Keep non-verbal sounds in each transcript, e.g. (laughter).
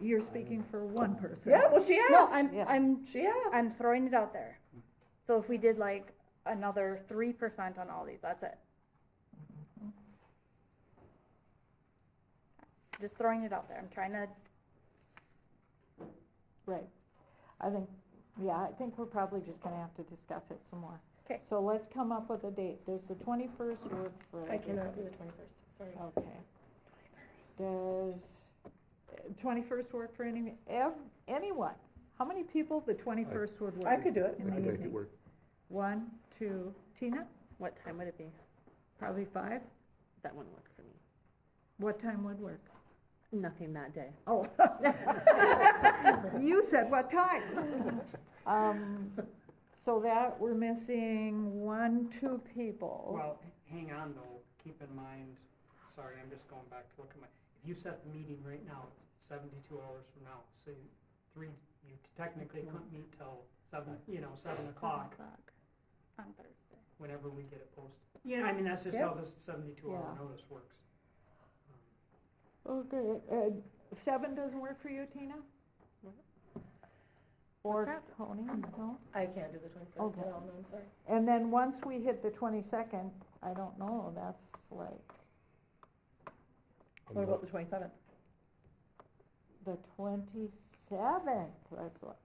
You're speaking for one person. Yeah, well, she No, asked. I'm, Yeah. I'm, She asked. I'm throwing it out there. So if we did like another three percent on all these, that's it. Just throwing it out there. I'm trying to, Right. I think, yeah, I think we're probably just gonna have to discuss it some more. 'Kay. So let's come up with a date. Does the twenty-first work for I everyone? cannot do the twenty-first, sorry. Okay. Does twenty-first work for any, ev- anyone? How many people The twenty-first would work. I could do it. In the I can make it evening. work. One, two, Tina, What time would it be? probably five. That wouldn't work for me. What time would work? Nothing that day. (laughs) Oh. You said what time? Um, so that, we're missing one, two people. Well, h- hang on though, keep in mind, sorry, I'm just going back to look at my, if you set the meeting right now, it's seventy-two hours from now, so you, three, you technically couldn't meet till seven, you know, seven o'clock, on Thursday. whenever we get it posted. You know, I mean, that's just how this seventy-two hour Yeah. notice works. Um, Okay, uh, seven doesn't work for you, Tina? Or Tony, no? I can't do the twenty-first, Oh, Okay. no, no, I'm sorry. And then once we hit the twenty-second, I don't know, that's like I'm not- the twenty-seventh? the twenty-seventh, let's look.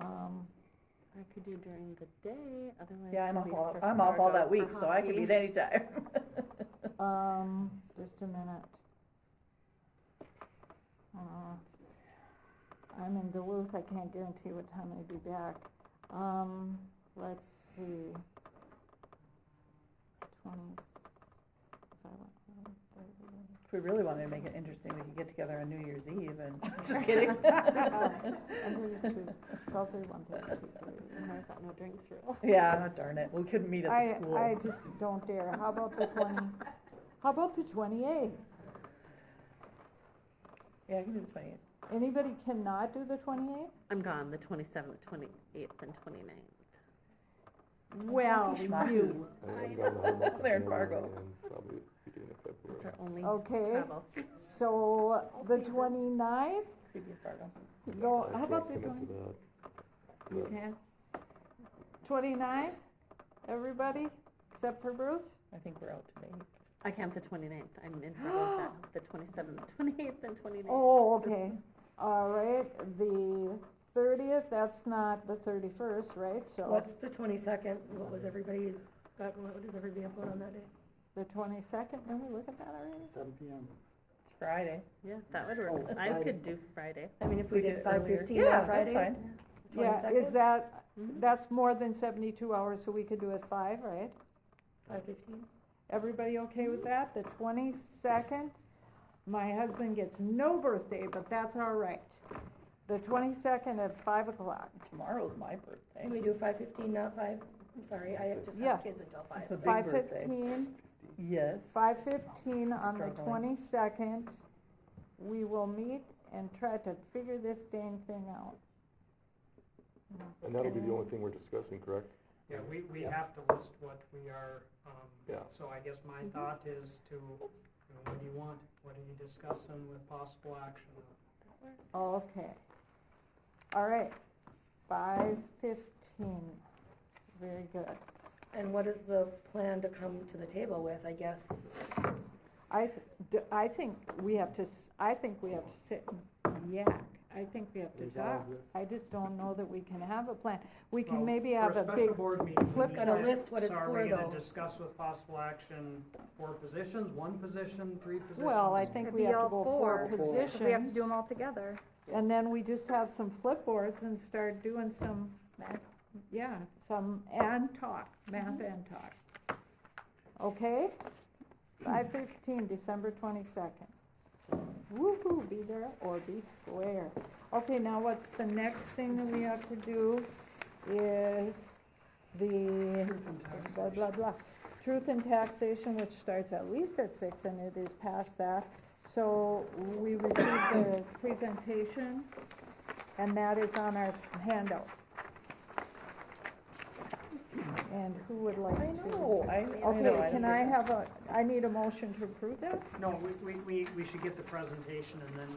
Um, I could do during the day, otherwise. Yeah, I'm I'll off be all, freaking I'm off all hard that for week, so I can hockey. meet anytime. um, just a minute. Uh, I'm in Duluth, I can't guarantee what time I'll be back. Um, let's see. Twenty, if I went, thirty. (laughs) If we really wanted to make it interesting, we could get together on New Year's Eve and, just kidding. Twelve thirty-one, thirty-two, And there's that no drinks rule. (laughs) Yeah, darn it, we couldn't meet at the I, I school. just don't dare. How about the twenty, how about the twenty-eighth? Yeah, I can do the twenty-eighth. Anybody cannot do the twenty-eighth? I'm gone the twenty-seventh, twenty-eighth, and twenty-ninth. Well, you, (laughs) I am going to hold up There in another Fargo. one in Probably beginning of February. That's our only okay, travel. so the twenty-ninth, See if you're Fargo. go, I how about the can't twenty, commit to that. you But can? Twenty-ninth, everybody, except for Bruce? I think we're out today. I can't the twenty-ninth, I'm in trouble with that, (gasps) the twenty-seventh, twenty-eighth, and twenty-ninth. Oh, okay, all right, the thirtieth, that's not the thirty-first, right, so. What's the twenty-second, what was everybody, what does everybody have on that day? The twenty-second, didn't we look at that already? Seven PM. It's Friday. Yeah, that would Oh, work, I could do Friday. I mean, if we did five fifteen Yeah, on that's Friday, fine. Yeah, is 22nd? that, Mhm. that's more than seventy-two hours, so we could do it five, right? five fifteen. Everybody okay with that? The twenty-second? My husband gets no birthday, but that's all right. The twenty-second at five o'clock. Tomorrow's my Can birthday. we do five fifteen, not five? I'm sorry, I just Yeah. have kids until five. It's a big Five birthday. fifteen, Yes. five fifteen on the Struggling. twenty-second. We will meet and try to figure this dang thing out. And that'll be the only thing we're discussing, correct? Yeah, we, we Yeah. have to list what we are, um, Yeah. so I guess my thought is to, you know, what do you want? What are you discussing with possible action? Okay. All right, five fifteen. Very good. And what is the plan to come to the table with, I guess? I, th- d- I think we have to, s- I think we have to sit and yak. I think we have to talk. Resolve this. I just don't know that we can have a plan. We can Well, maybe for have a special big, board meeting, we flip need Gotta to- list what it's So are we for, gonna though. discuss with possible action four positions, one position, three positions? well, I think It'd we be have to all go four four, 'cause Because we have to do them positions. all together. And then we just have some flipboards and start doing some, math- yeah, some, and talk, math and talk. Okay? Five fifteen, December twenty-second. Woo-hoo, be there or be square. Okay, now what's the next thing that we have to do is the Truth and taxation. blah, blah, blah. Truth and taxation, which starts at least at six and it is past that. So we received the presentation and that is on our handout. And who would like I to? know, I. Okay, can I have? have a, I need a motion to approve that? No, we, we, we we should get the presentation and then